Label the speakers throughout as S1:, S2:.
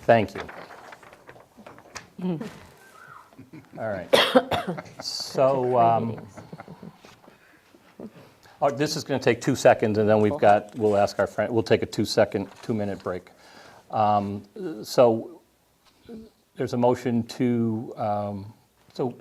S1: Thank you. All right. So, um, oh, this is going to take two seconds, and then we've got, we'll ask our friend, we'll take a two-second, two-minute break. Um, So there's a motion to, um, so,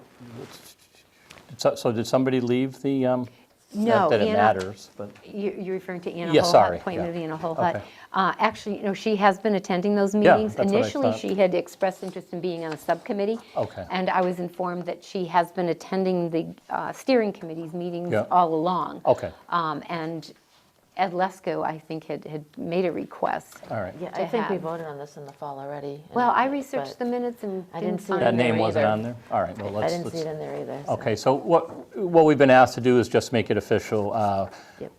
S1: so- so did somebody leave the? um,
S2: No,
S1: Not that it
S2: Anna-
S1: matters, but.
S2: You- You're referring to Anna Hole
S1: Yeah, sorry,
S2: Appointment of
S1: yeah.
S2: Anna Hole Hut.
S1: Okay.
S2: Uh, Actually, you know, she has been attending those
S1: Yeah,
S2: meetings.
S1: that's what I thought.
S2: Initially, she had expressed interest in being on a subcommittee.
S1: Okay.
S2: And I was informed that she has been attending the uh, steering committee's meetings
S1: Yeah. Oh.
S2: all along.
S1: Okay.
S2: Um, And Ed Lesko, I think, had had made a request.
S1: All right.
S3: Yeah,
S2: to
S3: I think we
S2: have.
S3: voted on this in the fall already. and-
S2: Well, I researched the
S3: but
S2: minutes and
S3: I
S2: didn't
S3: didn't see
S2: find
S3: that
S1: That
S2: it.
S1: name wasn't
S3: either.
S1: on there? All right, well,
S3: I
S1: let's.
S3: didn't see
S1: let's-
S3: it in there either. so-
S1: Okay, so what, what we've been asked to do is just make it official. Uh,
S3: Yep.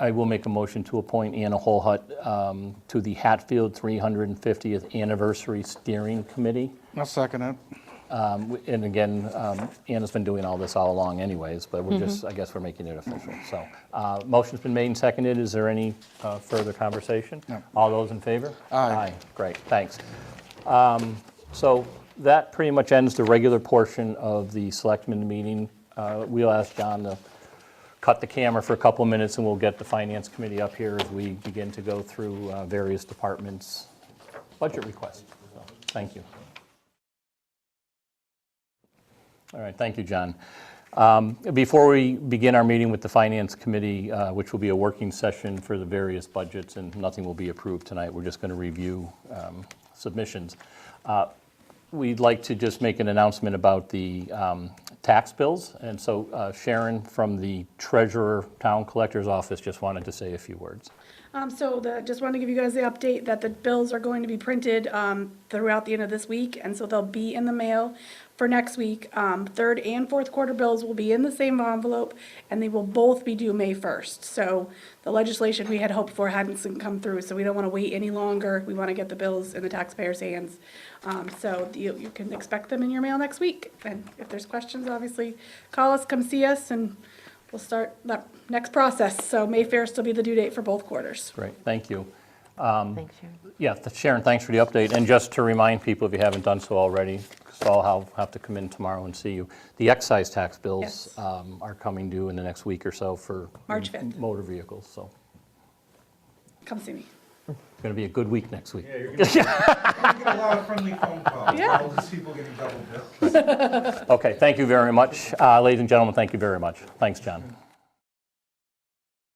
S1: I will make a motion to appoint Anna Holhut um, to the Hatfield 350th Anniversary Steering Committee.
S4: I'll second it.
S1: Um, w- And again, um, Anna's been doing all this all along anyways, but we're just, I guess we're making it official. So, uh, motion's been made and seconded. Is there any uh, further conversation?
S4: No.
S1: All those in favor?
S4: Aye.
S1: Great, thanks. Um, So that pretty much ends the regular portion of the selectmen meeting. Uh, We'll ask John to cut the camera for a couple of minutes, and we'll get the finance committee up here as we begin to go through uh, various departments' budget requests. So, Thank you. All right, thank you, John. Um, Before we begin our meeting with the Finance Committee, uh, which will be a working session for the various budgets, and nothing will be approved tonight, we're just going to review um, submissions. Uh, We'd like to just make an announcement about the um, tax bills, and so uh, Sharon from the Treasurer Town Collector's Office just wanted to say a few words.
S5: Um, so the, just wanted to give you guys the update that the bills are going to be printed, um, throughout the end of this week, and so they'll be in the mail for next week. Um, third and fourth quarter bills will be in the same envelope, and they will both be due May first. So the legislation we had hoped for hadn't come through, so we don't wanna wait any longer. We wanna get the bills in the taxpayers' hands. Um, so you, you can expect them in your mail next week. And if there's questions, obviously, call us, come see us, and We'll start the next process, so May 1st will be the due date for both quarters.
S1: Great, thank you.
S3: Thanks, Sharon.
S1: Yeah, th- Sharon, thanks for the update. And just to remind people, if you haven't done so already, because I'll have- have to come in tomorrow and see you, the excise tax bills
S5: Yes.
S1: um, are coming due in the next week or so for
S5: March
S1: m-
S5: 5th.
S1: motor vehicles, so
S5: Come see me.
S1: it's going to be a good week next week.
S6: Yeah, you're gonna you're gonna get a lot of friendly phone calls.
S5: Yeah.
S6: All these people getting double dipped.
S1: Okay, thank you very much. Uh, Ladies and gentlemen, thank you very much. Thanks, John.